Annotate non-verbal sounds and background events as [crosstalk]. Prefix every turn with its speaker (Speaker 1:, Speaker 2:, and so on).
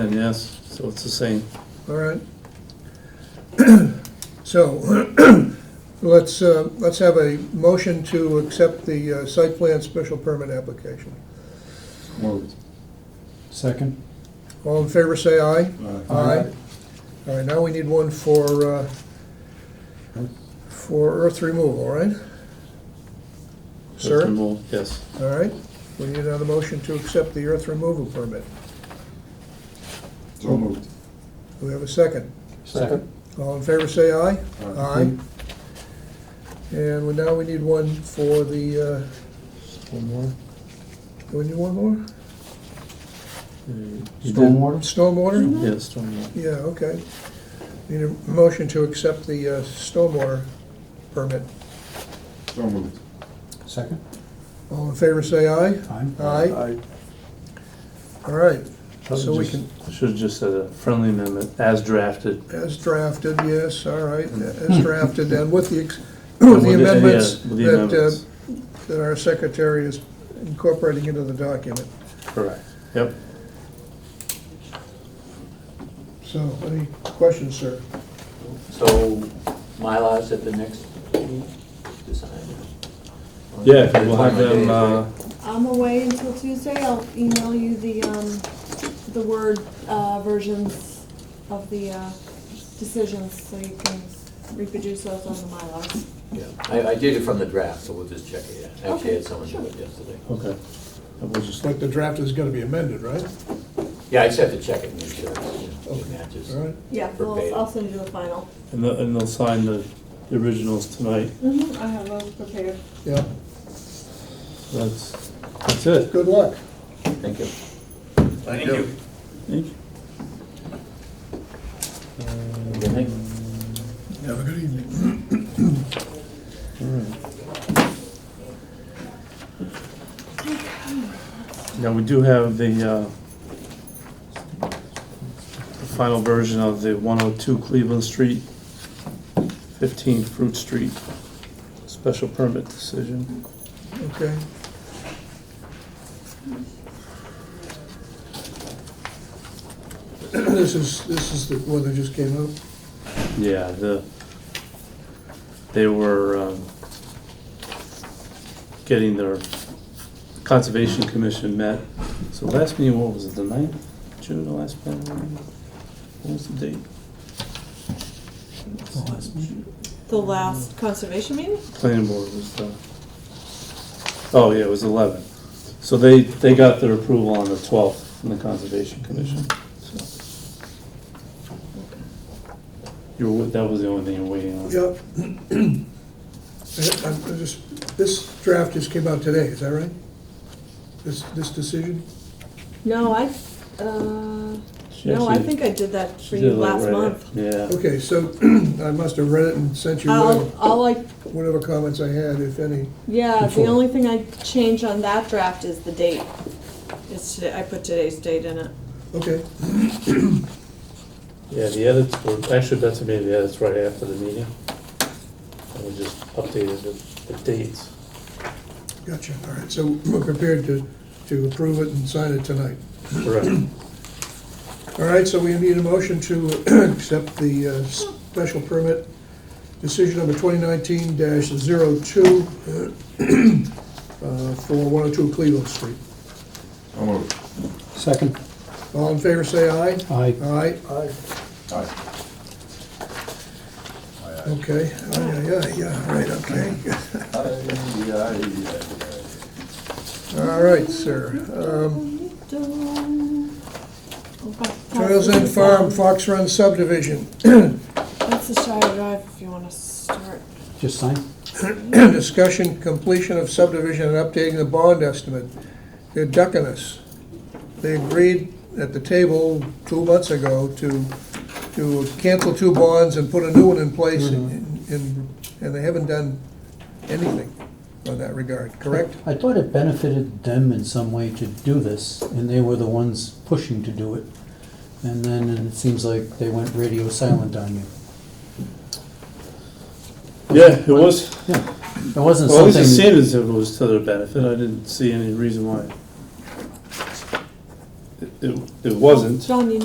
Speaker 1: And yes, so it's the same.
Speaker 2: All right. [clears throat] So, [clears throat] let's, uh, let's have a motion to accept the uh, site plan special permit application.
Speaker 3: Moved. Second?
Speaker 2: All in favor, say aye.
Speaker 3: Aye.
Speaker 2: All right, now we need one for, uh, for earth removal, right? Sir?
Speaker 1: Removal, Yes.
Speaker 2: All right, we need another motion to accept the earth removal permit.
Speaker 3: So moved.
Speaker 2: Do we have a second?
Speaker 3: Second?
Speaker 2: All in favor, say aye. Aye. And we- now we need one for the, uh,
Speaker 3: One more.
Speaker 1: Uh,
Speaker 2: do we need one more?
Speaker 1: You did-
Speaker 3: Stormwater?
Speaker 2: Stormwater?
Speaker 1: Yeah, stormwater.
Speaker 2: Yeah, okay. Need a motion to accept the uh, stormwater permit.
Speaker 3: So moved. Second?
Speaker 2: All in favor, say aye.
Speaker 3: Aye.
Speaker 2: Aye. All right, so we can,
Speaker 1: Should've just said a friendly amendment, as drafted.
Speaker 2: as drafted, yes, all right, as drafted, and with the, ex-
Speaker 1: And
Speaker 2: with
Speaker 1: Hmm. [coughs]
Speaker 2: the
Speaker 1: with yeah,
Speaker 2: amendments
Speaker 1: With the
Speaker 2: that,
Speaker 1: amendments,
Speaker 2: uh, that our secretary is incorporating into the document.
Speaker 1: correct. Yep.
Speaker 2: So, any questions, sir?
Speaker 4: So Mylars at the next meeting, design?
Speaker 1: Yeah, we'll have them, uh,
Speaker 5: I'm away until Tuesday, I'll email you the, um, the Word, uh, versions of the, uh, decisions, so you can reproduce those on the Mylar.
Speaker 4: Yeah, I, I did it from the draft, so we'll just check it out. Actually, I had
Speaker 5: Okay,
Speaker 4: someone do
Speaker 5: sure.
Speaker 4: it yesterday.
Speaker 1: okay. And We'll just,
Speaker 2: But the draft is gonna be amended, right?
Speaker 4: Yeah, I just have to check it and make sure it's, you know, it matches.
Speaker 2: All right,
Speaker 5: Yeah, well, I'll send you the final.
Speaker 1: and they'll, and they'll sign the originals tonight.
Speaker 5: Mm-hmm, I have those prepared.
Speaker 2: yeah,
Speaker 1: That's, that's it.
Speaker 2: good luck.
Speaker 4: Thank you.
Speaker 6: Thank you.
Speaker 1: Thank you.
Speaker 4: Good night.
Speaker 2: Have a good evening.
Speaker 1: Now, we do have the, uh, the final version of the 102 Cleveland Street, 15 Fruit Street, special permit decision.
Speaker 2: Okay. [clears throat] This is, this is the one that just came out?
Speaker 1: Yeah, the, they were um, getting their Conservation Commission met. So last meeting, what was it, the 9th, June, the last meeting? What was the date?
Speaker 5: The last conservation meeting?
Speaker 1: planning board was the, oh, yeah, it was 11. So they, they got their approval on the 12th from the Conservation Commission, so. You were, that was the only thing you were waiting on?
Speaker 2: [clears throat] Yep. I- I'm just, this draft just came out today, is that right? This, this decision?
Speaker 5: No, I, uh,
Speaker 1: She
Speaker 5: no, I
Speaker 1: actually-
Speaker 5: think I did that
Speaker 1: she
Speaker 5: for
Speaker 1: did
Speaker 5: you
Speaker 1: it like
Speaker 5: last
Speaker 1: right
Speaker 5: month.
Speaker 1: after- Yeah,
Speaker 2: Okay, so [clears throat] I must have read it and sent you
Speaker 5: I'll,
Speaker 2: whatever-
Speaker 5: I'll like
Speaker 2: whatever comments I had, if any.
Speaker 5: Yeah, the
Speaker 2: Before.
Speaker 5: only thing I changed on that draft is the date. It's today, I put today's date in it.
Speaker 2: Okay,
Speaker 1: yeah, the edits were, actually, that's maybe the edits right after the meeting. And we just updated the, the dates.
Speaker 2: gotcha, all right, so we're prepared to, to approve it and sign it tonight.
Speaker 1: Correct.
Speaker 2: All right, so we need a motion to [clears throat] accept the uh, special permit, decision number 2019-02 [clears throat] uh, for 102 Cleveland Street.
Speaker 3: So moved. Second?
Speaker 2: All in favor, say aye.
Speaker 3: Aye.
Speaker 2: Aye,
Speaker 3: Aye.
Speaker 2: okay, aye, aye, aye, yeah, all right, okay. [laughs] All right, sir. Um, Trails End Uh, Farm, Fox Run subdivision,
Speaker 5: That's the Shire Drive if you wanna start.
Speaker 3: Just sign?
Speaker 2: [clears throat] discussion completion of subdivision and updating the bond estimate. They're ducking us. They agreed at the table two months ago to, to cancel two bonds and put a new one in place, and, and and they haven't done anything on that regard, correct?
Speaker 7: I thought it benefited them in some way to do this, and they were the ones pushing to do it. And then it seems like they went radio silent on you.
Speaker 1: Yeah, it was,
Speaker 7: It wasn't
Speaker 1: well, at least it
Speaker 7: something,
Speaker 1: seemed as if it was to their benefit, I didn't see any reason why. It, it- it wasn't.
Speaker 5: John, you